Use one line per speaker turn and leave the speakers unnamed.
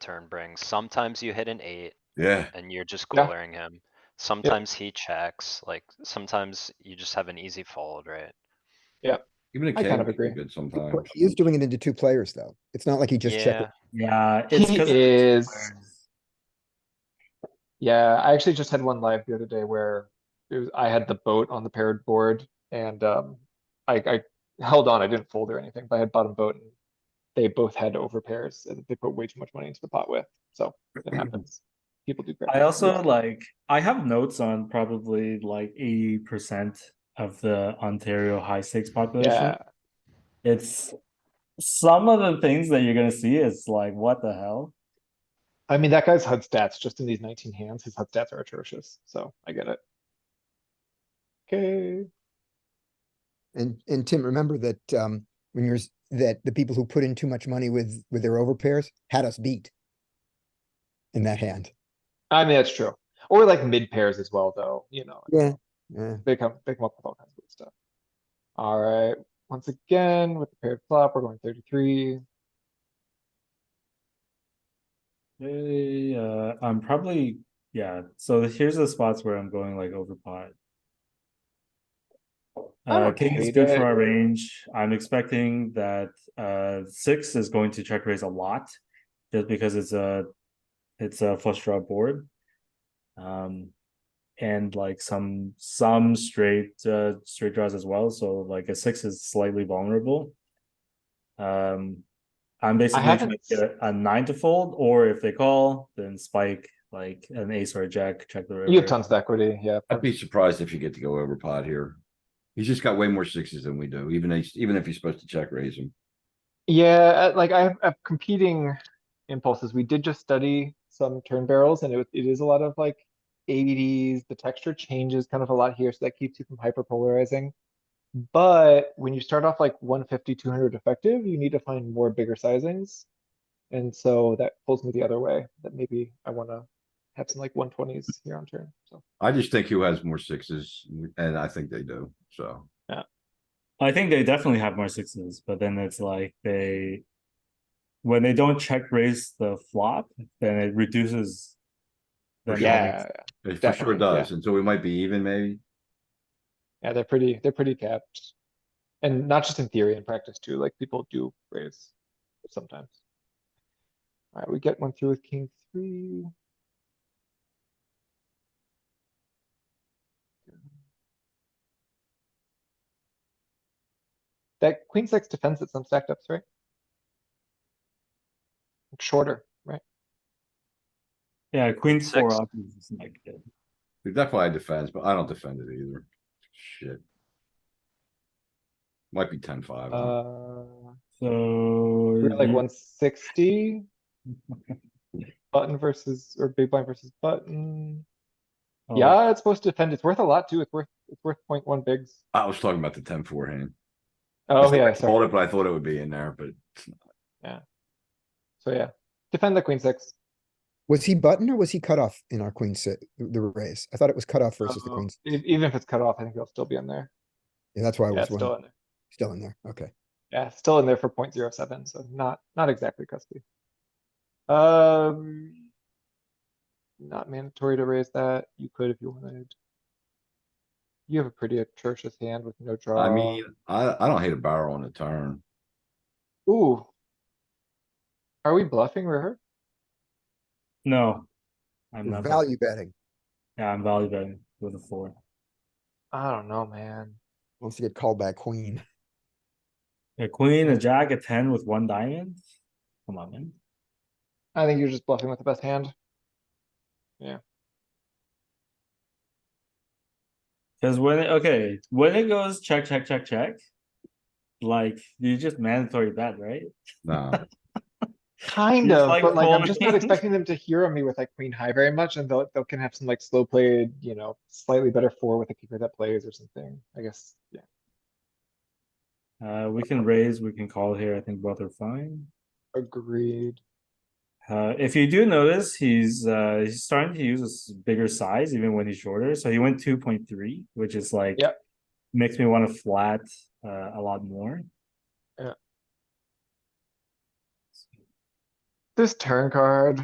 turn brings. Sometimes you hit an eight
Yeah,
and you're just
Yeah.
glaring him. Sometimes he checks, like sometimes you just have an easy fold, right?
even a
I kind
king
of
is
agree.
good
But
sometimes.
He is doing it into two players though. It's not like he just checked.
Yeah,
Yeah, it's
He
because
is, yeah, I actually just had one live the other day where it was, I had the boat on the paired board and, um, I, I held on, I didn't fold or anything, but I had bottom boat and they both had over pairs and they put way too much money into the pot with, so it happens. People do. crap.
I also like I have notes on probably like eighty percent of the Ontario high stakes population.
Yeah,
It's some of the things that you're gonna see is like what the hell?
I mean, that guy's HUD stats, just in these nineteen hands, his HUD stats are atrocious, so I get it. Okay,
And, and Tim, remember that, um, when you're, s- that the people who put in too much money with, with their overpairs had us beat. In that hand.
I mean, that's true, or like mid pairs as well, though, you know,
Yeah. Yeah,
they come, they come up with all kinds of good stuff. Alright, once again, with the paired flop, we're going thirty-three,
Hey, uh, I'm probably yeah. So here's the spots where I'm going like over pot.
I'm
Uh, king is
okay
good
there.
for our range. I'm expecting that uh six is going to check raise a lot, just because it's a it's a flush draw board. Um, and like some some straight uh straight draws as well. So like a six is slightly vulnerable. Um, I'm basically trying to
haven't s-
get a nine to fold, or if they call, then spike like an ace or a jack, check the river.
you have tons of equity, yeah,
I'd be surprised if you get to go over pot here. He's just got way more sixes than we do, even if, even if he's supposed to check raise him.
Yeah, uh, like I have I have competing impulses. We did just study some turn barrels and it, it is a lot of like ADDs. The texture changes kind of a lot here, so that keeps you from hyper polarizing. But when you start off like 150, 200 effective, you need to find more bigger sizings. And so that pulls me the other way, that maybe I wanna have some like 120s here on turn, so.
I just think who has more sixes, and I think they do, so.
I think they definitely have more sixes, but then it's like they when they don't check raise the flop, then it reduces. them having-
Yeah,
It for sure
Definitely,
does, and so we might be even maybe.
yeah, they're pretty, they're pretty capped. And not just in theory, in practice too, like people do raise sometimes. Alright, we get one through with king three. That queen six defends at some stacked ups, right? Shorter, right?
yeah, queen four
Six.
off is like good.
We definitely had defense, but I don't defend it either. Shit. Might be ten five.
Uh,
So
we're like
you-
one sixty. Button versus, or big blind versus button.
oh,
Yeah, it's supposed to defend. It's worth a lot too. It's worth, it's worth point one bigs.
I was talking about the ten four hand.
Oh, yeah,
I called
sorry.
it, but I thought it would be in there, but
So, yeah, defend the queen six.
was he button or was he cut off in our queen set, the raise? I thought it was cut off versus the
Uh,
queen. s-
e- Even if it's cut off, I think it'll still be in there.
Yeah, that's why I
Yeah,
was
it's still
wondering,
in there.
still in there, okay.
Yeah, it's still in there for point zero seven, so not, not exactly custody. Um. Not mandatory to raise that. You could if you wanted. You have a pretty atrocious hand with no draw.
I mean, I, I don't hate a barrel on the turn.
Ooh. Are we bluffing river?
No, I'm not.
Value betting,
Yeah, I'm value betting with a four.
I don't know, man.
wants to get called back queen.
A queen, a jack, a ten with one diamond. Come on, man.
I think you're just bluffing with the best hand.
Because when it, okay, when it goes check, check, check, check, like you just mandatory bet, right?
No,
Kind
It's
of,
like
but like I'm just not
folding.
expecting them to hero me with like queen high very much, and they'll they'll can have some like slow played, you know, slightly better four with a kicker that plays or something. I guess. Yeah.
Uh, we can raise, we can call here. I think both are fine.
Agreed.
Uh, if you do notice, he's uh, he's starting to use a s- bigger size even when he's shorter. So he went two point three, which is like
Yep.
makes me want to flat uh, a lot more.
Yeah. This turn card.